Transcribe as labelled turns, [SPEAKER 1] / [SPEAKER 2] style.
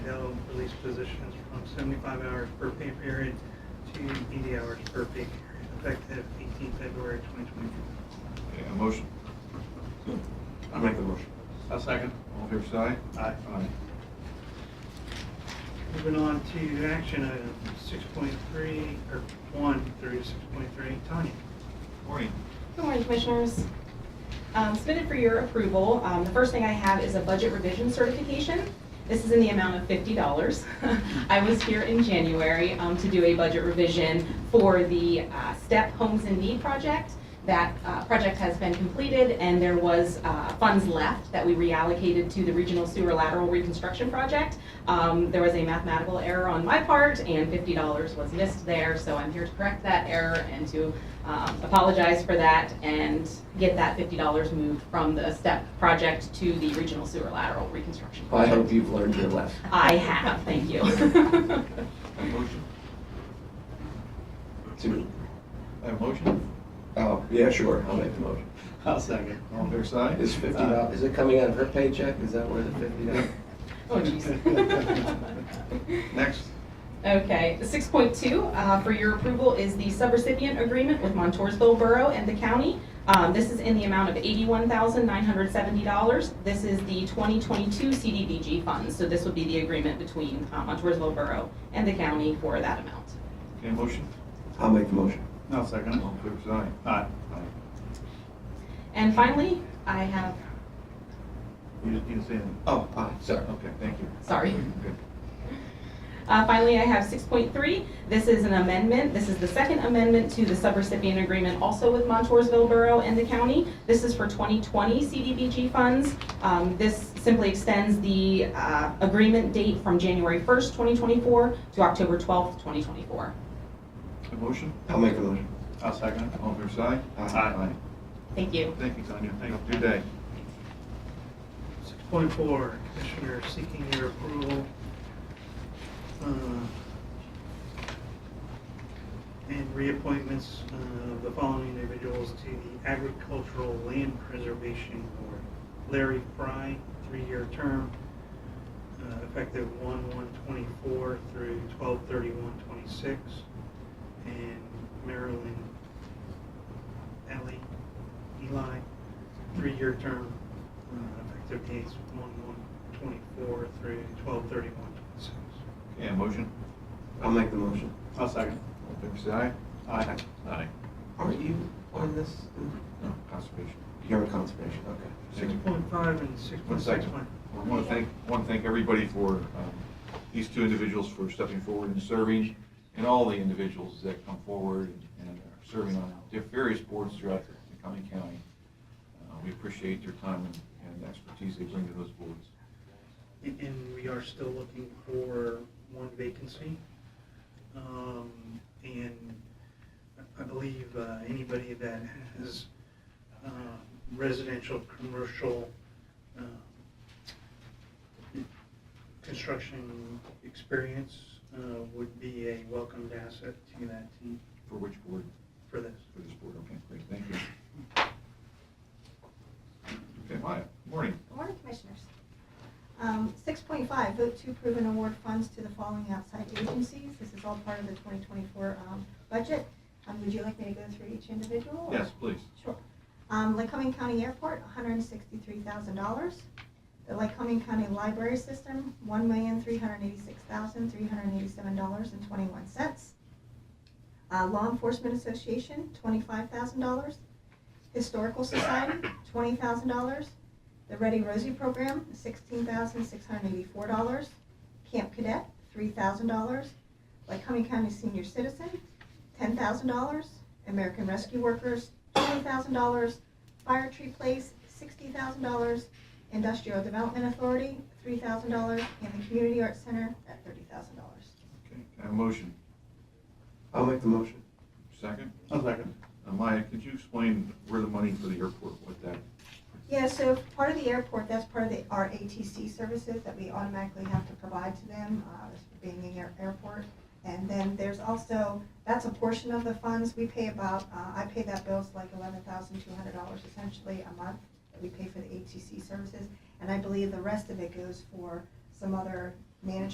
[SPEAKER 1] this position is from seventy-five hours per pay period to eighty hours per pay period, effective eighteen February twenty twenty-four.
[SPEAKER 2] Okay, a motion. I make the motion.
[SPEAKER 3] A second.
[SPEAKER 2] All fair side?
[SPEAKER 3] Aye.
[SPEAKER 1] Moving on to action items, six point three, or one through six point three, Tanya.
[SPEAKER 2] Morning.
[SPEAKER 4] Good morning, Commissioners. Um, Submitted for your approval, um, the first thing I have is a budget revision certification. This is in the amount of $50. I was here in January um, to do a budget revision for the uh, STEP Homes in Need project. That uh, project has been completed, and there was uh, funds left that we reallocated to the Regional Sewer Lateral Reconstruction Project. Um, There was a mathematical error on my part, and $50 was missed there, so I'm here to correct that error and to um, apologize for that and get that $50 moved from the STEP project to the Regional Sewer Lateral Reconstruction
[SPEAKER 5] I
[SPEAKER 4] Project.
[SPEAKER 5] hope you've learned your lesson.
[SPEAKER 4] I have, thank you.
[SPEAKER 2] A motion.
[SPEAKER 5] To-
[SPEAKER 2] A motion?
[SPEAKER 5] Oh, yeah, sure, I'll make the motion.
[SPEAKER 3] A second.
[SPEAKER 2] All fair side?
[SPEAKER 5] Is fifty dollars, is it coming out of her paycheck? Is that where the fifty dollars?
[SPEAKER 4] Oh, jeez.
[SPEAKER 2] Uh, Next.
[SPEAKER 4] Okay, six point two, uh, for your approval is the subrecipient agreement with Montoursville Borough and the county. Um, this is in the amount of eighty-one thousand nine hundred seventy dollars. This is the twenty twenty-two CDBG funds, so this would be the agreement between, uh, Montoursville Borough and the county for that amount.
[SPEAKER 2] Okay, a motion?
[SPEAKER 5] I'll make the motion.
[SPEAKER 3] No, second.
[SPEAKER 2] All fair side?
[SPEAKER 3] Aye.
[SPEAKER 2] Aye.
[SPEAKER 4] And finally, I have,
[SPEAKER 2] You just need to say anything.
[SPEAKER 5] Oh, aye, sorry.
[SPEAKER 2] Okay, thank you.
[SPEAKER 4] sorry.
[SPEAKER 2] Good.
[SPEAKER 4] Uh, Finally, I have 6.3. This is an amendment. This is the second amendment to the subrecipient agreement, also with Montoursville Borough and the county. This is for 2020 CDBG funds. Um, This simply extends the uh, agreement date from January 1st, 2024 to October 12th, 2024.
[SPEAKER 2] A motion?
[SPEAKER 5] I'll make the motion.
[SPEAKER 3] A second.
[SPEAKER 2] All fair side?
[SPEAKER 5] Aye.
[SPEAKER 4] Thank you.
[SPEAKER 2] Thank you, Tanya. Thank you. Good day.
[SPEAKER 1] Six point four, Commissioner seeking your approval. uh, And reappointments uh, of the following individuals to the Agricultural Land Preservation Board. Larry Fry, three-year term, uh, effective one one twenty-four through twelve thirty-one twenty-six. And Marilyn Ellie Eli, three-year term, uh, effective dates one one twenty-four through twelve thirty-one twenty-six.
[SPEAKER 2] Okay, a motion?
[SPEAKER 5] I'll make the motion.
[SPEAKER 3] A second.
[SPEAKER 2] All fair side?
[SPEAKER 3] Aye.
[SPEAKER 2] Aye.
[SPEAKER 5] Aren't you on this?
[SPEAKER 2] No, conservation.
[SPEAKER 5] You're on conservation, okay.
[SPEAKER 1] Six point five and six
[SPEAKER 2] One
[SPEAKER 1] point six
[SPEAKER 2] second.
[SPEAKER 1] one.
[SPEAKER 2] I want to thank, want to thank everybody for, um, these two individuals for stepping forward and serving, and all the individuals that come forward and are serving on diff- various boards throughout the County County. Uh, We appreciate their time and- and expertise they bring to those boards.
[SPEAKER 1] And- And we are still looking for one vacancy. Um, And I- I believe uh, anybody that has um, residential, commercial, uh, um, construction experience uh, would be a welcomed asset to that team
[SPEAKER 2] For which board?
[SPEAKER 1] for this.
[SPEAKER 2] For this board, okay, great, thank you. Okay, Maya, morning.
[SPEAKER 6] Good morning, Commissioners. Um, 6.5, vote to approve and award funds to the following outside agencies. This is all part of the 2024 um, budget. Um, Would you like me to go through each individual? or-
[SPEAKER 2] Yes, please.
[SPEAKER 6] Sure. Um, Lycoming County Airport, $163,000. The Lycoming County Library System, $1,386,387.21. Uh, Law Enforcement Association, $25,000. Historical Society, $20,000. The Ready Rosie Program, $16,684. Camp Cadet, $3,000. Lycoming County Senior Citizen, $10,000. American Rescue Workers, $20,000. Fire Tree Place, $60,000. Industrial Development Authority, $3,000. And the Community Arts Center at $30,000.
[SPEAKER 2] Okay, can I have a motion,
[SPEAKER 5] I'll make the motion.
[SPEAKER 2] second.
[SPEAKER 3] A second.
[SPEAKER 2] Uh, Maya, could you explain where the money for the airport, what that
[SPEAKER 6] Yeah, so part of the airport, that's part of the, our ATC services that we automatically have to provide to them, uh, as being in their airport. And then there's also, that's a portion of the funds, we pay about, uh, I pay that bill's like eleven thousand two hundred dollars essentially a month that we pay for the ATC services. And I believe the rest of it goes for some other management